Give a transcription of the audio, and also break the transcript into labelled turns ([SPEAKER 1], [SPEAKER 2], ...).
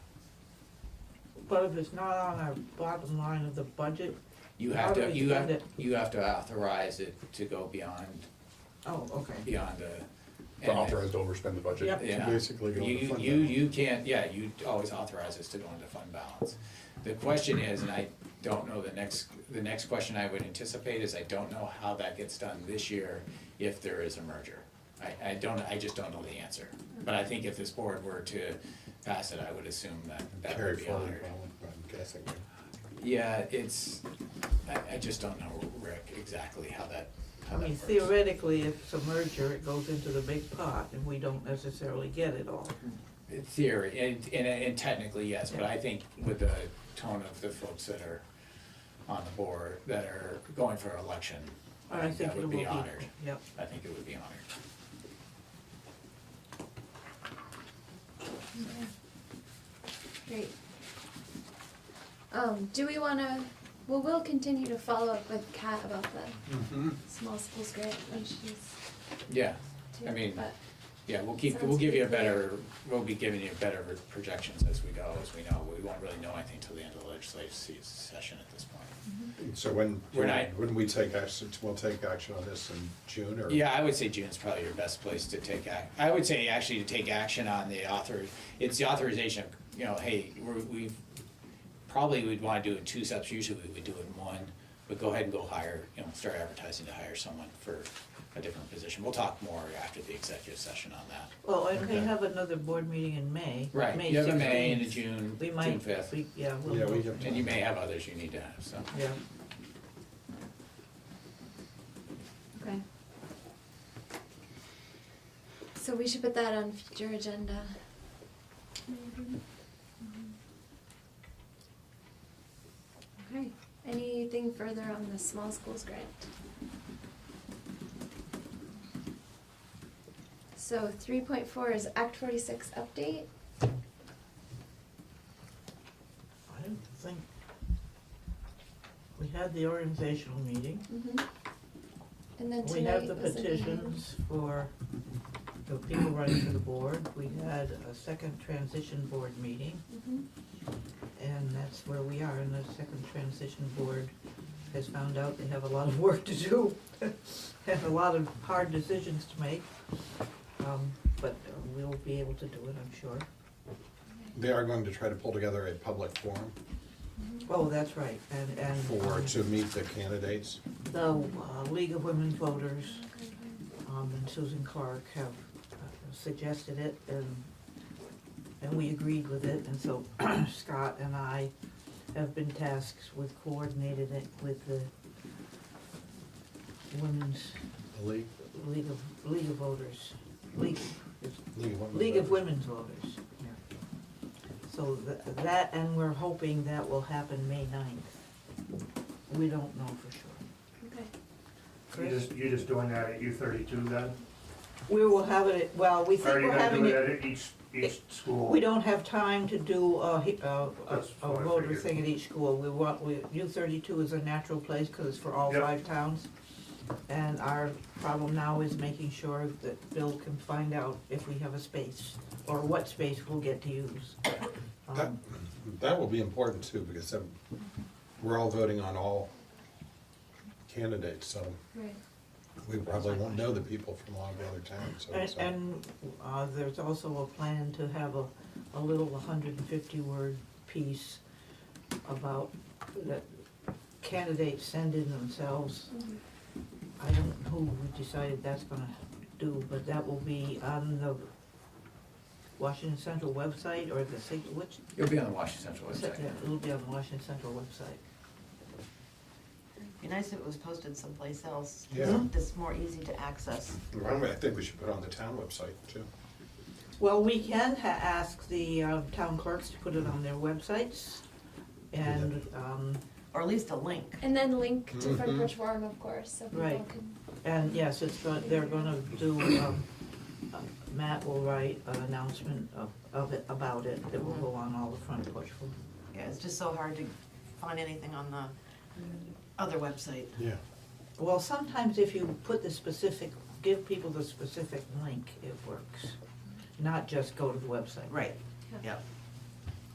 [SPEAKER 1] but if it's not on our bottom line of the budget,
[SPEAKER 2] You have
[SPEAKER 1] How do
[SPEAKER 2] to,
[SPEAKER 1] we
[SPEAKER 2] you
[SPEAKER 1] fund
[SPEAKER 2] have,
[SPEAKER 1] it?
[SPEAKER 2] you have to authorize it to go beyond,
[SPEAKER 1] oh, okay.
[SPEAKER 2] beyond the.
[SPEAKER 3] The
[SPEAKER 2] and-
[SPEAKER 3] authorized to overspend the budget.
[SPEAKER 1] Yep.
[SPEAKER 3] to
[SPEAKER 2] Yeah.
[SPEAKER 3] Basically go
[SPEAKER 2] You-
[SPEAKER 3] into fund
[SPEAKER 2] You,
[SPEAKER 3] balance.
[SPEAKER 2] you can't, yeah, you always authorize us to go into fund balance. The question is, and I don't know, the next, the next question I would anticipate is, I don't know how that gets done this year if there is a merger. I, I don't, I just don't know the answer. But I think if this board were to pass it, I would assume that that
[SPEAKER 3] Carry
[SPEAKER 2] would be
[SPEAKER 3] forward,
[SPEAKER 2] honored.
[SPEAKER 3] I'm guessing.
[SPEAKER 2] Yeah, it's, I, I just don't know, Rick, exactly how that,
[SPEAKER 1] I
[SPEAKER 2] how that
[SPEAKER 1] mean
[SPEAKER 2] works.
[SPEAKER 1] theoretically, if it's a merger, it goes into the big pot and we don't necessarily get it all.
[SPEAKER 2] In Theory, and, and, and technically, yes, but I think with the tone of the folks that are on the board, that are going for election, Oh, I think that
[SPEAKER 1] it
[SPEAKER 2] would
[SPEAKER 1] will
[SPEAKER 2] be honored.
[SPEAKER 1] Yep,
[SPEAKER 2] I think it would be honored.
[SPEAKER 4] Great. Um, do we wanna, well, we'll continue to follow up with Kat about the small schools grant when she's
[SPEAKER 2] Yeah,
[SPEAKER 4] due,
[SPEAKER 2] I mean,
[SPEAKER 4] but,
[SPEAKER 2] yeah, we'll keep, we'll
[SPEAKER 4] Sounds
[SPEAKER 2] give you a
[SPEAKER 4] pretty clear.
[SPEAKER 2] better, we'll be giving you better projections as we go, as we know. We won't really know anything till the end of the legislative se- session at this point.
[SPEAKER 3] So when,
[SPEAKER 2] We're not-
[SPEAKER 3] when we take action, we'll take action on this in June or?
[SPEAKER 2] Yeah, I would say June's probably your best place to take ac I would say actually to take action on the author, it's the authorization, of you know, hey, we're, we've, probably we'd wanna do it in two steps, usually we would do it in one, but go ahead and go hire, you know, start advertising to hire someone for a different position. We'll talk more after the executive session on that.
[SPEAKER 1] well, and we
[SPEAKER 3] Okay.
[SPEAKER 1] have another board meeting in May.
[SPEAKER 2] Right,
[SPEAKER 1] May
[SPEAKER 2] you have a May and a
[SPEAKER 1] 16th.
[SPEAKER 2] June,
[SPEAKER 1] We
[SPEAKER 2] June
[SPEAKER 1] might,
[SPEAKER 2] fifth,
[SPEAKER 1] we, yeah, we'll.
[SPEAKER 3] Yeah, we have.
[SPEAKER 2] and you may have others you need to have, so.
[SPEAKER 1] Yeah,
[SPEAKER 4] okay. So we should put that on future agenda. Okay, anything further on the small schools grant? So three point four is Act forty-six update.
[SPEAKER 1] I don't think, we had the organizational meeting.
[SPEAKER 4] Mm-hmm. And then
[SPEAKER 1] We have
[SPEAKER 4] tonight
[SPEAKER 1] the
[SPEAKER 4] was a meeting.
[SPEAKER 1] petitions for the people running for the board. We had a second transition board meeting,
[SPEAKER 4] Mhm.
[SPEAKER 1] and that's where we are, and the second transition board has found out they have a lot of work to do, and a lot of hard decisions to make. Um, But uh, we'll be able to do it, I'm sure.
[SPEAKER 3] They are going to try to pull together a public forum
[SPEAKER 1] Oh, that's right, and, and
[SPEAKER 3] for,
[SPEAKER 1] um,
[SPEAKER 3] to meet the candidates.
[SPEAKER 1] the uh, League of Women Voters
[SPEAKER 4] Okay.
[SPEAKER 1] um, and Susan Clark have uh, suggested it, and, and we agreed with it, and so Scott and I have been tasked with coordinating it with the Women's
[SPEAKER 3] The League,
[SPEAKER 1] League of, League of Voters, League,
[SPEAKER 3] League of Women.
[SPEAKER 1] League of
[SPEAKER 3] Voters.
[SPEAKER 1] Women's Voters. So tha- that, and we're hoping that will happen May ninth. We don't know for sure.
[SPEAKER 4] Okay.
[SPEAKER 5] You're just, you're just doing that at U thirty-two then?
[SPEAKER 1] We will have it, at- well, we think
[SPEAKER 5] Or are you
[SPEAKER 1] we're
[SPEAKER 5] gonna
[SPEAKER 1] having
[SPEAKER 5] do
[SPEAKER 1] it.
[SPEAKER 5] it at each, each school?
[SPEAKER 1] We don't have time to do a, he- a, a-
[SPEAKER 5] That's
[SPEAKER 1] a
[SPEAKER 5] what I
[SPEAKER 1] voter
[SPEAKER 5] figured.
[SPEAKER 1] thing at each school. We want, we, U thirty-two is a natural place, cause it's for all
[SPEAKER 5] Yep.
[SPEAKER 1] five towns. And our problem now is making sure that Bill can find out if we have a space, or what space we'll get to use.
[SPEAKER 3] That,
[SPEAKER 1] Um,
[SPEAKER 3] that will be important too, because that- we're all voting on all candidates, so
[SPEAKER 4] Right.
[SPEAKER 3] we probably won't know the people from a lot of the other towns, so.
[SPEAKER 1] And,
[SPEAKER 3] it's, uh,
[SPEAKER 1] and, uh, there's also a plan to have a, a little hundred and fifty word piece about, that candidates send in themselves
[SPEAKER 4] Mhm.
[SPEAKER 1] I don't know who we decided that's gonna do, but that will be on the Washington Central website or the, sig- which,
[SPEAKER 2] You'll be on the Washington Central website.
[SPEAKER 1] yeah, it'll be on the Washington Central website.
[SPEAKER 6] Be nice if it was posted someplace else.
[SPEAKER 3] Yeah.
[SPEAKER 6] It's more easy to access.
[SPEAKER 3] By the way, I think we should put it on the town website too.
[SPEAKER 1] Well, we can ha- ask the uh, town clerks to put it on their websites and, um,
[SPEAKER 6] Or at least a link.
[SPEAKER 4] And then link to
[SPEAKER 3] Mhm.
[SPEAKER 4] Front Porch Forum, of course, so people
[SPEAKER 1] Right.
[SPEAKER 4] can.
[SPEAKER 1] and yes, it's, go- they're gonna do, um, uh, Matt will write an announcement of, of it, about it, that will go on all the front porch.
[SPEAKER 6] Yeah, it's just so hard to find anything on the other website.
[SPEAKER 3] Yeah.
[SPEAKER 1] Well, sometimes if you put the specific, give people the specific link, it works. Not just go to the website.
[SPEAKER 6] Right, yep.